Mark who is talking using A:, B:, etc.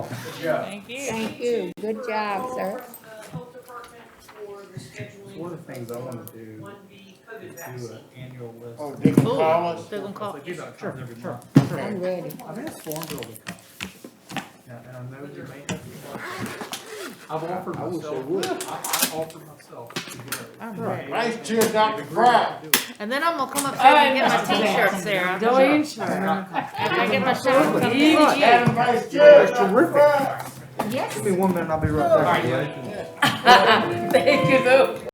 A: Thank you.
B: Thank you, good job, sir.
C: From Uh, the health department for the scheduling.
D: One of the things I wanna do
C: One B COVID
D: do
C: vaccine.
D: an annual list.
E: Oh, they can call us?
A: They're gonna call.
D: Like, you know, it comes every month.
B: I'm ready.
D: I've asked Farmville to come. Now, and I know you may have. to- I've offered
E: I wish they
D: myself,
E: would.
D: I, I offered myself to
A: I'm
D: go.
A: ready.
E: Nice cheer, Dr. Crown.
A: And then I'm gonna come upstairs and get my t-shirt, Sarah. After I get my shower, come get you.
E: Adam Vice Chair,
D: That's
E: Dr.
D: terrific.
E: Crown.
D: Give me one minute, I'll be right back.
A: Thank you, though.